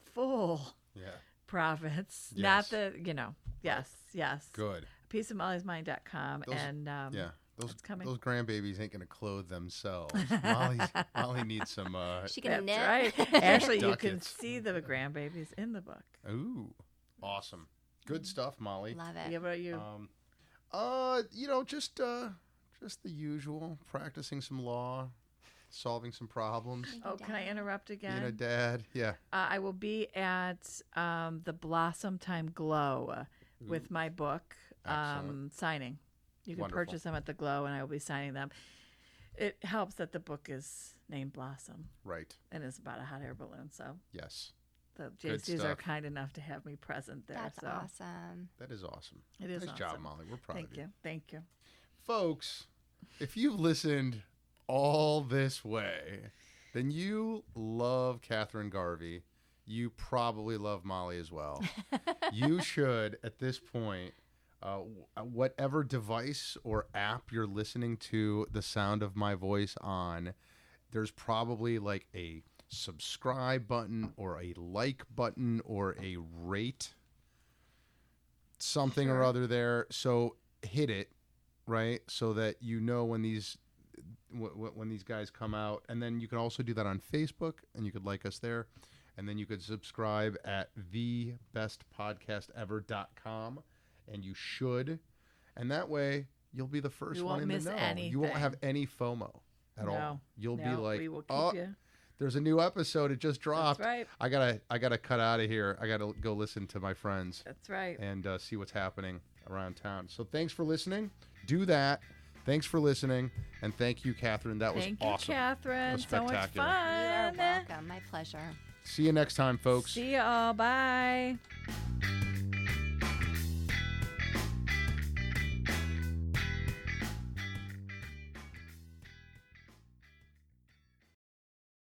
full Yeah. profits. Yes. Not the, you know, yes, yes. Good. Piece of Molly's mind.com. Those- and um, Yeah. Those it's coming. those grandbabies ain't gonna clothe themselves. Molly's, Molly needs some. Uh, She that's can knit. right. Actually, you can Ducats. see the grandbabies in the book. ooh, awesome. Good stuff, Molly. Love Yeah, it. but Mm-hmm. you, Um, uh, you know, just uh, just the usual, practicing some law, solving some problems. oh, can I interrupt again? Being a dad, yeah. Uh, I will be at um, the Blossom Time Glow uh, with my book Excellent. um, signing. You can Wonderful. purchase them at the Glow, and I will be signing them. It helps that the book is named Blossom Right. and it's about a hot air balloon. So Yes. the Good JCs are stuff. kind enough to have me present there. That's so awesome. That is awesome. it is nice awesome. job, Molly. We're proud Thank of you. you. Thank you. folks. If you've listened all this way, then you love Catherine Garvey. You probably love Molly as well. you should, at this point, uh, wh- whatever device or app you're listening to the sound of my voice on, there's probably like a subscribe button or a like button or a rate something or other there. So hit it, right? So that you know when these wh- wh- when these guys come out, and then you can also do that on Facebook, and you could like us there, and then you could subscribe at the thebestpodcastever.com, and you should, and that way you'll be the first You one won't in miss the know. You won't anything. have any FOMO at all. No, You'll No, be like, we will keep oh, you. there's a new episode. It just dropped. That's right. I gotta, I gotta cut out of here. I gotta go listen to my friends That's right. and uh, see what's happening around town. So thanks for listening. Do that. Thanks for listening, and thank you, Catherine. That was Thank you, awesome. Catherine. was So much spectacular. fun. You are welcome. My pleasure. See you next time, folks. See you all. Bye.